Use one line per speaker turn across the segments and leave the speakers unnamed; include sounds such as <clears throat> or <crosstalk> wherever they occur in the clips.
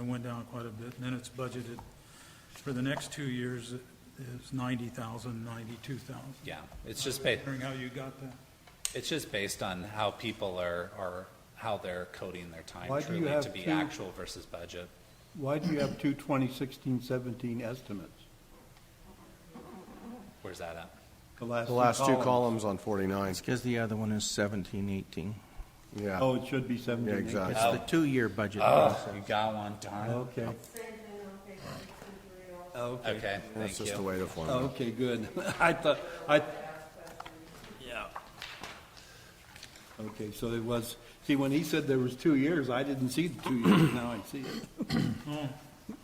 went down quite a bit. And then it's budgeted for the next two years is ninety thousand, ninety-two thousand.
Yeah, it's just ba,
Wondering how you got that?
it's just based on how people are, are, how they're coding their
Why
time
do you
truly to
have
be
two-
actual versus budget.
Why do you have two 2016, 17 estimates?
Where's that at?
The last
The
two
last two
columns?
columns on 49,
It's because the other one is seventeen, eighteen.
yeah.
Oh, it should be 17.
Yeah,
18.
exactly.
It's the two-year budget
Oh,
process.
you got one, darn it.
Okay, okay.
Okay,
That's
thank
just
you.
the way the formula.
Okay, good. <laughs> I thought, I, yeah. Okay, so it was, see, when he said there was two years, I didn't see the two years, now I see it.
Oh,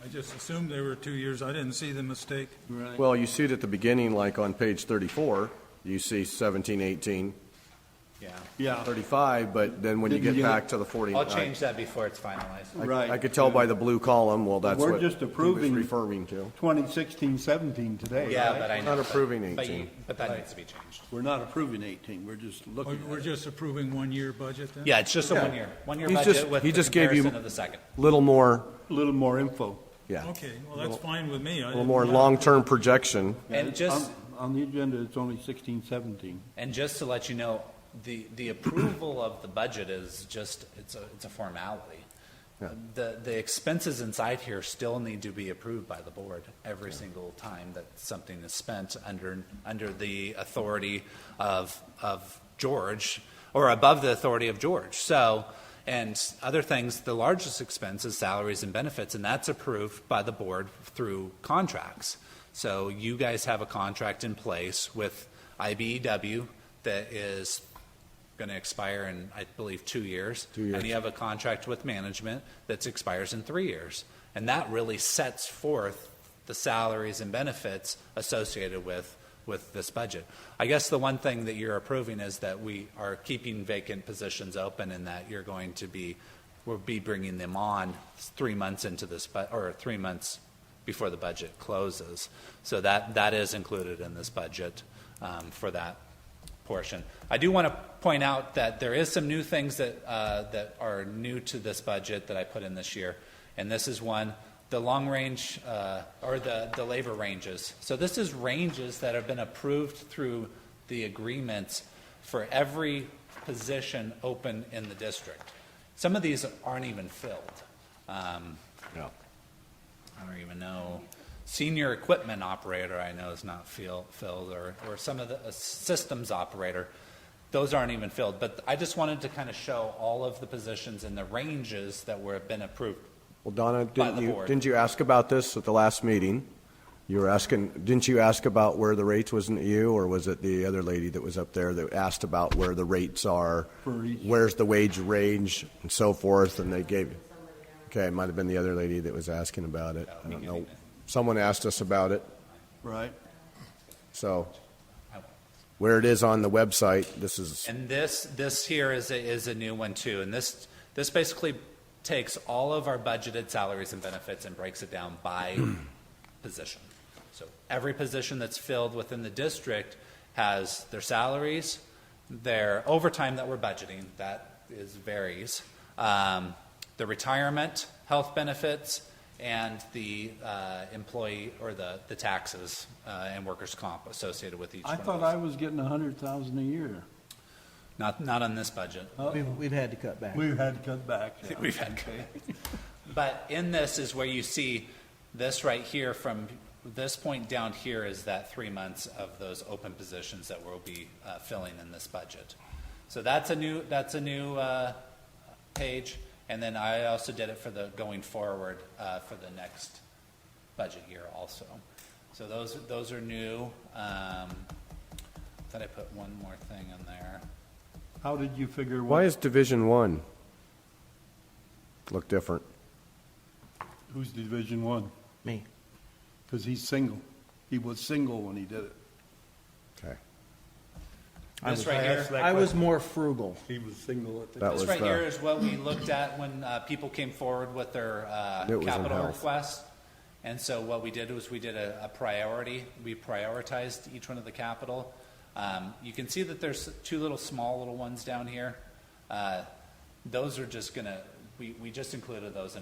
I just assumed they were two years. I didn't see the mistake.
Right.
Well, you see it at the beginning, like on page 34, you see 17, 18,
Yeah,
Yeah,
35, but then when you
Didn't
get
get it.
back to the 49.
I'll change that before it's finalized.
I-
Right.
I could tell by the blue column, well, that's
We're
what
just
he was
approving-
referring to.
2016, 17 today,
Yeah,
right?
but I
Not
know. but-
approving
but you-
18.
But that needs to be changed.
We're not approving 18, we're just
We're
looking
we're
at it.
just approving one-year budget then?
Yeah, it's just a
Yeah.
one-year, one-year
He's
budget
just-
with
he
the
just gave you-
comparison of the second.
Little more,
A little more info.
yeah, a
Okay, well, that's fine with me. A
little more long-term projection.
And just,
On- On the agenda, it's only 16, 17.
And just to let you know, the, the approval of the budget is just, it's a, it's a formality.
Yeah.
The, the expenses inside here still need to be approved by the board every single time that something is spent under, under the authority of, of George, or above the authority of George. So, and other things, the largest expense is salaries and benefits, and that's approved by the board through contracts. So you guys have a contract in place with E IBEW that is going to expire in, I believe, two years. Two years. And you have a contract with management that expires in three years. And that really sets forth the salaries and benefits associated with, with this budget. I guess the one thing that you're approving is that we are keeping vacant positions open and that you're going to be, we'll be bringing them on three months into this, bu- or three months before the budget closes. So that, that is included in this budget um, for that portion. I do want to point out that there is some new things that, uh, that are new to this budget that I put in this year. And this is one, the long range, uh, or the, the labor ranges. So this is ranges that have been approved through the agreements for every position open in the district. Some of these aren't even filled. Um, I don't even know. Senior equipment operator, I know is not fill- filled, or, or some of the uh, systems operator. Those aren't even filled, but I just wanted to kind of show all of the positions and the ranges that were, been approved.
Well, Donna, didn't
the
you,
board.
didn't you ask about this at the last meeting? You were asking, didn't you ask about where the rates, wasn't it you, or was it the other lady that was up there that asked about where the rates are?
For each-
Where's the wage range and so forth, and they gave, okay, it might have been the other lady that was asking about it. I don't know. Someone asked us about it,
Right.
so where it is on the website, this is,
And this, this here is a, is a new one too, and this, this basically takes all of our budgeted salaries and benefits and breaks it down by
<clears throat>
position. So every position that's filled within the district has their salaries, their overtime that we're budgeting, that is varies, um, the retirement, health benefits, and the uh, employee, or the, the taxes uh, and workers' comp associated with each
I
one of
thought
those.
I was getting 100,000 a year.
Not, not on this budget.
We've, we've had to cut back.
We've had to cut back.
We've had But in this is where you see this right here from this point down here is that three months of those open positions that we'll be uh, filling in this budget. So that's a new, that's a new uh, page. And then I also did it for the going forward uh, for the next budget year also. So those, those are new. Um, Thought I put one more thing in there.
How did you figure
why
what,
is Division One look different?
who's Division One?
Me.
Because he's single. He was single when he did it.
Okay,
I
This
was-
right here.
I was more frugal.
He was single at the
That
time.
This
was
right
the-
here is what we looked at when uh, people came forward with their uh,
It was in
capital
health.
request. And so what we did was we did a a priority, we prioritized each one of the capital. Um, You can see that there's two little, small little ones down here. Uh, Those are just gonna, we, we just included those in